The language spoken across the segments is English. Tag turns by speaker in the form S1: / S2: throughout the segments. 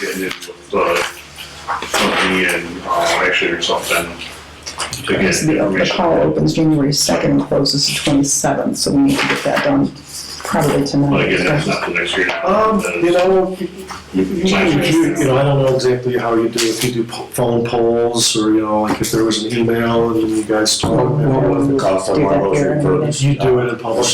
S1: getting it with, uh, company and, uh, actually or something to get
S2: Because the, the
S1: information.
S2: call opens January second and closes the twenty-seventh, so we need to get that done probably
S1: But
S2: tonight.
S1: again, that's not the next year.
S3: Um, you know, you, you, you know, I don't know exactly how you do, if you do po- phone polls, or, you know, like if there was an email and you guys
S4: What
S3: talk.
S4: was the cost of one of those refurbished?
S3: You do it in public,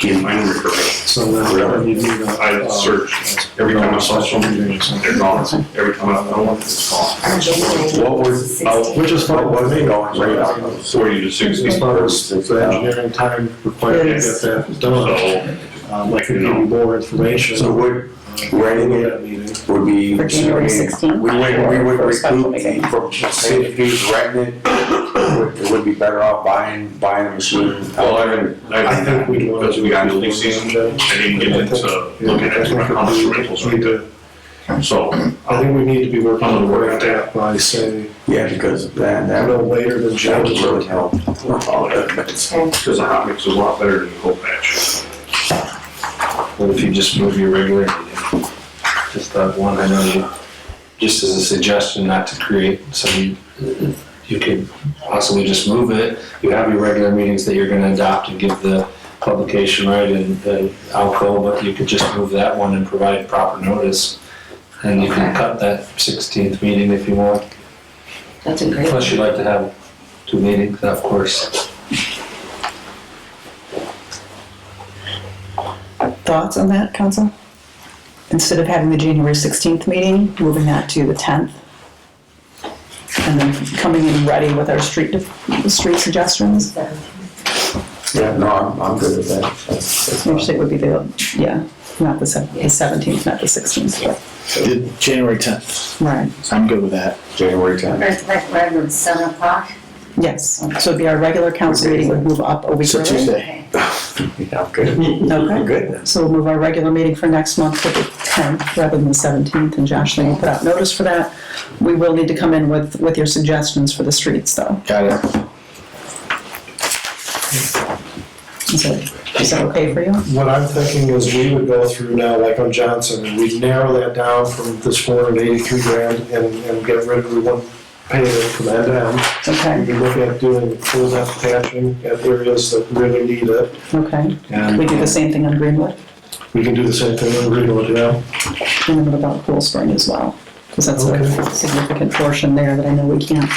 S4: Can
S1: Mine are recurring.
S3: so then, then you need a. uh,
S1: I search every time I saw something, they're gone. Every time I found one, it's gone.
S4: What was, uh,
S3: Which is fine.
S4: what was the going rate on those?
S1: Forty to sixty.
S3: As
S1: So,
S3: far as the engineering time required to get that done, um, like we need more information. Uh,
S4: So would writing it
S3: that meeting.
S4: would be.
S2: For January 16th?
S4: We would, we would
S2: For a special
S4: recruit
S2: meeting.
S4: the, from, say if he's renting it, would- it would be better off buying, buying a machine.
S1: Well, I mean,
S3: I think
S1: I,
S3: we'd want to.
S1: because we got building season, I didn't get into looking at how much rentals we do. So,
S3: I think we need to be working
S1: I'm
S3: on
S1: gonna work
S3: the
S1: on that.
S3: that by say,
S4: Yeah, because that, that
S3: no
S4: would,
S3: later than
S4: that would
S3: January.
S4: really help. All that, but it's-
S1: because the hot mix is a lot better than the cold patch. What if you just move your regular?
S5: Just that one, I know you, just as a suggestion not to create, so you, you could possibly just move it. You have your regular meetings that you're gonna adopt and give the publication right and the outcome, but you could just move that one and provide proper notice. And you can cut that sixteenth meeting if you want,
S6: That's a great.
S5: unless you'd like to have two meetings, of course.
S2: Thoughts on that, council? Instead of having the January sixteenth meeting, moving that to the tenth? And then coming in ready with our street, street suggestions,
S4: yeah, no, I'm, I'm good with that. That's- that's fine.
S2: actually it would be the, yeah, not the seventeenth, not the sixteenth, but,
S7: The January 10th.
S2: right,
S7: I'm good with that.
S4: January tenth.
S6: Right, right, right, it's seven o'clock.
S2: yes. So it'd be our regular council meeting would move up a week
S7: So
S2: early.
S7: Tuesday.
S6: Okay.
S4: Yeah, I'm good. I'm
S2: Okay.
S4: good then.
S2: So we'll move our regular meeting for next month to the tenth rather than the seventeenth, and Josh, then will put out notice for that. We will need to come in with, with your suggestions for the streets though.
S7: Got it.
S2: Is that, is that okay for you?
S3: What I'm thinking is we would go through now, like on Johnson, and we'd narrow that down from this four hundred eighty-three grand and, and get rid of, we wouldn't pay it from that down. We'd
S2: Okay,
S3: be looking at doing full depth patching at areas that really need it.
S2: okay.
S3: And
S2: We do the same thing on Greenwood,
S3: we can do the same thing on Greenwood, you know?
S2: and then what about Cool Spring as well? Because that's a
S3: Okay.
S2: significant portion there that I know we can't.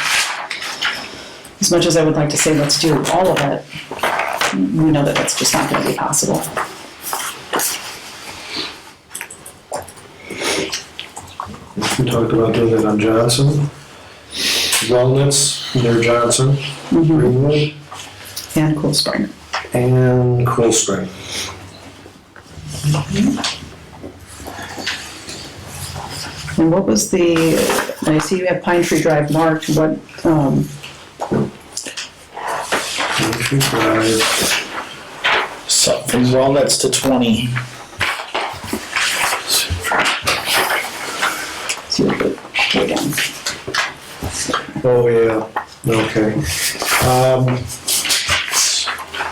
S2: As much as I would like to say, let's do all of it, we know that that's just not gonna be possible.
S3: We talked about doing it on Johnson. Walnuts near Johnson,
S2: Mhm.
S3: Greenwood,
S2: And Cool Spring.
S3: and Cool Spring.
S2: And what was the, I see you have Pine Tree Drive marked, what, um,
S3: Country Drive.
S7: So from walnuts to 20.
S2: see what the, way down.
S3: Oh, yeah, okay. Um,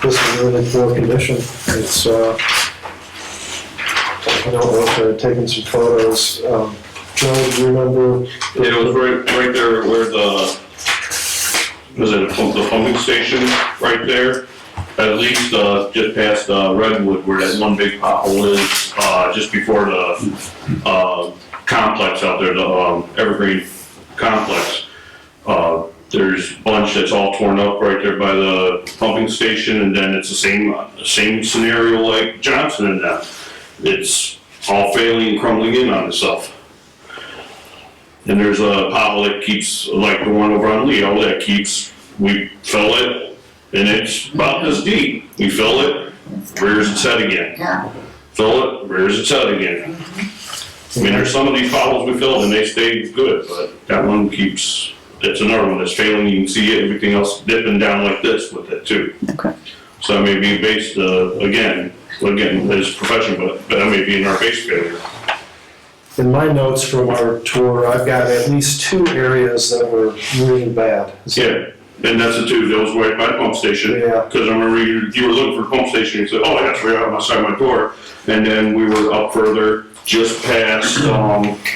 S3: This is really poor condition, it's, uh, I don't know if they're taking some photos. Um, Joe, do you remember?
S1: Yeah, it was right, right there where the, was it the pump- the pumping station, right there? At least, uh, just past, uh, Redwood, where that one big pothole is, uh, just before the, uh, complex out there, the, um, Evergreen Complex. Uh, there's a bunch that's all torn up right there by the pumping station, and then it's the same, same scenario like Johnson and that. It's all failing and crumbling in on itself. And there's a pothole that keeps, like the one over on Leo, that keeps, we fill it, and it's about this deep. We fill it, rears its head again.
S6: Yeah,
S1: Fill it, rears its head again. I mean, there's some of these potholes we filled and they stay good, but that one keeps, that's another one that's failing. You can see it, everything else dipping down like this with it too.
S2: Okay.
S1: So that may be based, uh, again, again, his profession, but that may be in our base failure.
S3: In my notes from our tour, I've got at least two areas that were really bad.
S1: Yeah, and that's the two, those right by the pump station.
S3: Yeah.
S1: Because I remember you, you were looking for a pump station, you said, oh, that's right outside my door. And then we were up further, just past, um,